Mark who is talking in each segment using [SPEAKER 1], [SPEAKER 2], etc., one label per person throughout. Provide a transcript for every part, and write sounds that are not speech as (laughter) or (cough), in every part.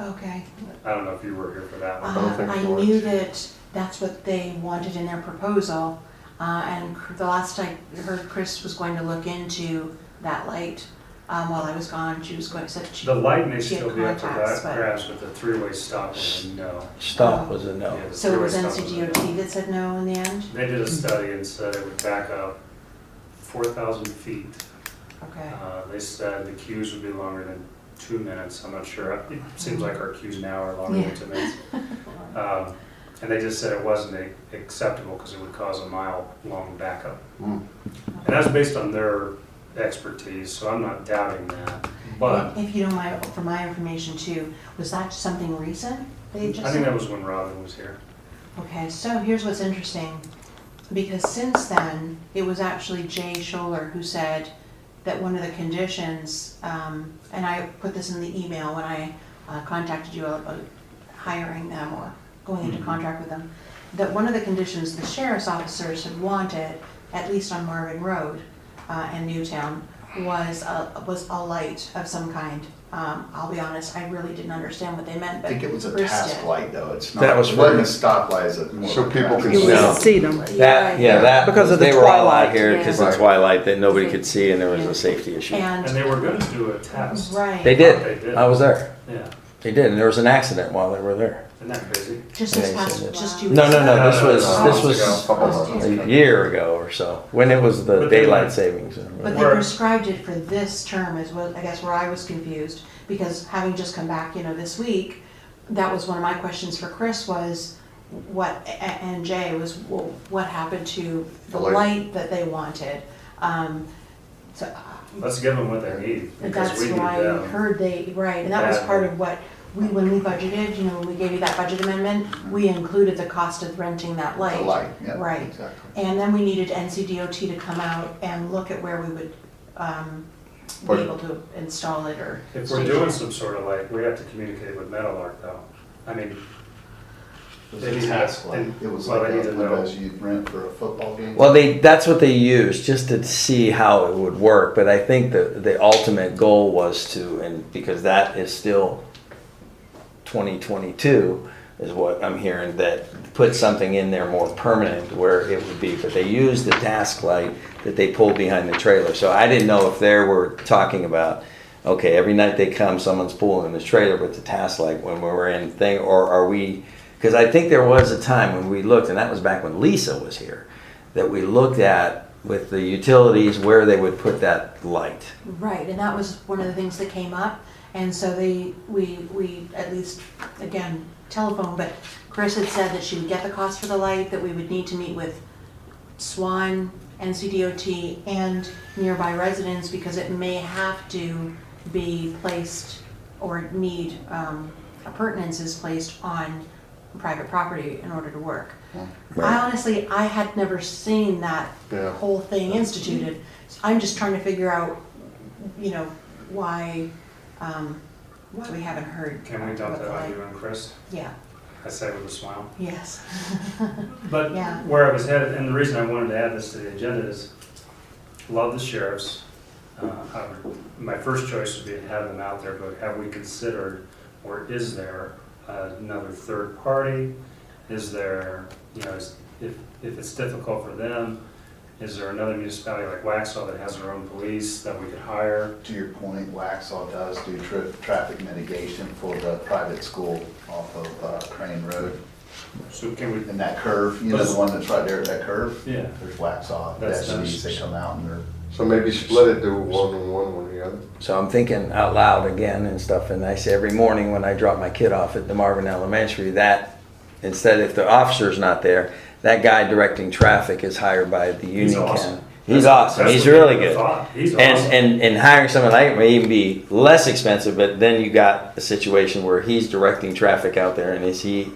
[SPEAKER 1] Okay.
[SPEAKER 2] I don't know if you were here for that one.
[SPEAKER 1] Uh,
[SPEAKER 3] think
[SPEAKER 1] I
[SPEAKER 3] you were.
[SPEAKER 1] knew that that's what they wanted in their proposal, uh, and cr- the last I heard, Chris was going to look into that light, um, while I was gone, she was going, said she,
[SPEAKER 2] The light may
[SPEAKER 1] She had
[SPEAKER 2] still be up to
[SPEAKER 1] contacts,
[SPEAKER 2] that
[SPEAKER 1] but-
[SPEAKER 2] grass, but the three-way stop was a no.
[SPEAKER 3] Stop was a no.
[SPEAKER 2] Yeah, the
[SPEAKER 1] so it
[SPEAKER 2] three-way
[SPEAKER 1] was
[SPEAKER 2] stop a no.
[SPEAKER 1] NCDOT that said no in the end?
[SPEAKER 2] They did a study and said it would back up four thousand feet.
[SPEAKER 1] Okay,
[SPEAKER 2] Uh, They said the queues would be longer than two minutes, I'm not sure. It seems like our queues now are longer than two minutes. Um, And they just said it wasn't a- acceptable because it would cause a mile-long backup.
[SPEAKER 3] Mm.
[SPEAKER 2] And that's based on their expertise, so I'm not doubting that. But
[SPEAKER 1] If you don't mind, for my information too, was that something recent? They just
[SPEAKER 2] I think
[SPEAKER 1] said?
[SPEAKER 2] that was when Robin was here.
[SPEAKER 1] Okay, so here's what's interesting, because since then, it was actually Jay Scholler who said that one of the conditions, um, and I put this in the email when I uh, contacted you about hiring them or going
[SPEAKER 4] Mm-hmm.
[SPEAKER 1] into contract with them, that one of the conditions the sheriff's officers had wanted, at least on Marvin Road uh, and Newtown, was a, was a light of some kind. Um, I'll be honest, I really didn't understand what they meant,
[SPEAKER 4] I
[SPEAKER 1] but
[SPEAKER 4] think it was a
[SPEAKER 1] Bruce
[SPEAKER 4] task
[SPEAKER 1] did.
[SPEAKER 4] light though, it's not,
[SPEAKER 3] That was
[SPEAKER 4] it wasn't
[SPEAKER 3] for-
[SPEAKER 4] a stoplight, it's a more.
[SPEAKER 3] So
[SPEAKER 4] of a
[SPEAKER 3] people could
[SPEAKER 4] traffic
[SPEAKER 5] You
[SPEAKER 4] light.
[SPEAKER 3] No.
[SPEAKER 5] can see them.
[SPEAKER 3] That, yeah, that,
[SPEAKER 5] Because of the
[SPEAKER 3] they were all out
[SPEAKER 5] twilight,
[SPEAKER 3] here
[SPEAKER 5] yeah.
[SPEAKER 3] because of
[SPEAKER 4] Right.
[SPEAKER 3] twilight that nobody could see and there was
[SPEAKER 1] Yeah.
[SPEAKER 3] a safety issue.
[SPEAKER 1] And
[SPEAKER 2] And they were gonna do a test.
[SPEAKER 1] Right.
[SPEAKER 3] They
[SPEAKER 2] They
[SPEAKER 3] did.
[SPEAKER 2] did.
[SPEAKER 3] I was there.
[SPEAKER 2] Yeah,
[SPEAKER 3] They did, and there was an accident while they were there.
[SPEAKER 2] isn't that crazy?
[SPEAKER 1] Just
[SPEAKER 3] Yeah,
[SPEAKER 1] this
[SPEAKER 3] he
[SPEAKER 1] past,
[SPEAKER 3] said it.
[SPEAKER 1] just two weeks.
[SPEAKER 3] No, no,
[SPEAKER 1] ago.
[SPEAKER 3] no, this
[SPEAKER 2] No, no,
[SPEAKER 3] was,
[SPEAKER 2] no,
[SPEAKER 3] this
[SPEAKER 2] months ago.
[SPEAKER 3] was
[SPEAKER 4] Couple months ago.
[SPEAKER 3] a year ago or so, when it was the
[SPEAKER 2] But they-
[SPEAKER 3] daylight savings. or
[SPEAKER 1] But
[SPEAKER 3] whatever.
[SPEAKER 1] they
[SPEAKER 2] Where-
[SPEAKER 1] prescribed it for this term is what, I guess where I was confused, because having just come back, you know, this week, that was one of my questions for Chris was, what, a- a- and Jay was, well, what happened to the
[SPEAKER 4] The light.
[SPEAKER 1] light that they wanted? Um, So uh,
[SPEAKER 2] Let's give them what they need, because
[SPEAKER 1] That's
[SPEAKER 2] we need
[SPEAKER 1] what I
[SPEAKER 2] them.
[SPEAKER 1] heard they, right, and that was
[SPEAKER 2] Yeah.
[SPEAKER 1] part of what, we, when we budgeted, you know, when we gave you that budget amendment, we included the cost of renting that light.
[SPEAKER 4] The light, yeah.
[SPEAKER 1] Right.
[SPEAKER 4] Exactly.
[SPEAKER 1] And then we needed NCDOT to come out and look at where we would um, be
[SPEAKER 4] But-
[SPEAKER 1] able to install it or.
[SPEAKER 2] If we're doing some sort of light, we have to communicate with Metal Arc though. I mean,
[SPEAKER 4] It was
[SPEAKER 2] They
[SPEAKER 4] a
[SPEAKER 2] need to-
[SPEAKER 4] task light.
[SPEAKER 2] they-
[SPEAKER 4] It was
[SPEAKER 2] well,
[SPEAKER 4] like
[SPEAKER 2] they need to
[SPEAKER 4] that
[SPEAKER 2] know.
[SPEAKER 4] windows you'd rent for a football game.
[SPEAKER 3] Well, they, that's what they used, just to see how it would work, but I think the, the ultimate goal was to, and because that is still twenty twenty-two, is what I'm hearing, that put something in there more permanent where it would be, but they used the task light that they pulled behind the trailer, so I didn't know if they were talking about, okay, every night they come, someone's pulling this trailer with the task light when we were in thing, or are we, because I think there was a time when we looked, and that was back when Lisa was here, that we looked at with the utilities where they would put that light.
[SPEAKER 1] Right, and that was one of the things that came up, and so they, we, we, at least, again, telephone, but Chris had said that she would get the cost for the light, that we would need to meet with Swan, NCDOT, and nearby residents, because it may have to be placed or need, um, appurtenances placed on private property in order to work. I honestly, I had never seen that
[SPEAKER 3] Yeah.
[SPEAKER 1] whole thing instituted. So I'm just trying to figure out, you know, why, um, why we haven't heard.
[SPEAKER 2] can we dump
[SPEAKER 1] about
[SPEAKER 2] that
[SPEAKER 1] the
[SPEAKER 2] on
[SPEAKER 1] light.
[SPEAKER 2] you and Chris?
[SPEAKER 1] Yeah,
[SPEAKER 2] I say with a smile.
[SPEAKER 1] yes.
[SPEAKER 2] But
[SPEAKER 1] Yeah.
[SPEAKER 2] where I was headed, and the reason I wanted to add this to the agenda is, love the sheriffs. Uh, I would- My first choice would be to have them out there, but have we considered, or is there another third party? Is there, you know, is- if, if it's difficult for them, is there another municipality like Waxhaw that has their own police that we could hire?
[SPEAKER 4] To your point, Waxaw does do tra- traffic mitigation for the private school off of uh, Crane Road.
[SPEAKER 2] So can we,
[SPEAKER 4] And that curve, you know, the one that's right there at that curve,
[SPEAKER 2] yeah.
[SPEAKER 4] there's Waxaw,
[SPEAKER 2] That's
[SPEAKER 4] that's these, they
[SPEAKER 2] nice.
[SPEAKER 4] come out and they're
[SPEAKER 6] So maybe split it, do one and one, one and the other.
[SPEAKER 3] So I'm thinking out loud again and stuff, and I say every morning when I drop my kid off at the Marvin Elementary, that, instead if the officer's not there, that guy directing traffic is hired by the
[SPEAKER 2] He's
[SPEAKER 3] Union
[SPEAKER 2] awesome.
[SPEAKER 3] County. He's
[SPEAKER 2] That's-
[SPEAKER 3] awesome,
[SPEAKER 2] that's
[SPEAKER 3] he's
[SPEAKER 2] what
[SPEAKER 3] really
[SPEAKER 2] people
[SPEAKER 3] good.
[SPEAKER 2] thought. He's
[SPEAKER 3] And,
[SPEAKER 2] awesome.
[SPEAKER 3] and, and hiring someone like him may even be less expensive, but then you got a situation where he's directing traffic out there, and is he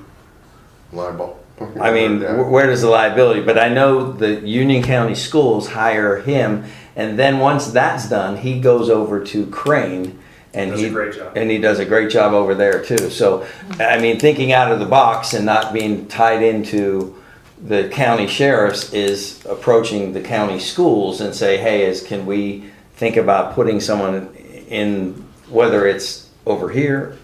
[SPEAKER 6] Libel.
[SPEAKER 3] I mean,
[SPEAKER 6] (laughs) Yeah.
[SPEAKER 3] wh- where does the liability? But I know the Union County Schools hire him, and then once that's done, he goes over to Crane, and
[SPEAKER 2] Does a
[SPEAKER 3] he
[SPEAKER 2] great job.
[SPEAKER 3] and he does a great job over there too. So, I mean, thinking out of the box and not being tied into the county sheriffs is approaching the county schools and say, hey, is can we think about putting someone in whether it's over here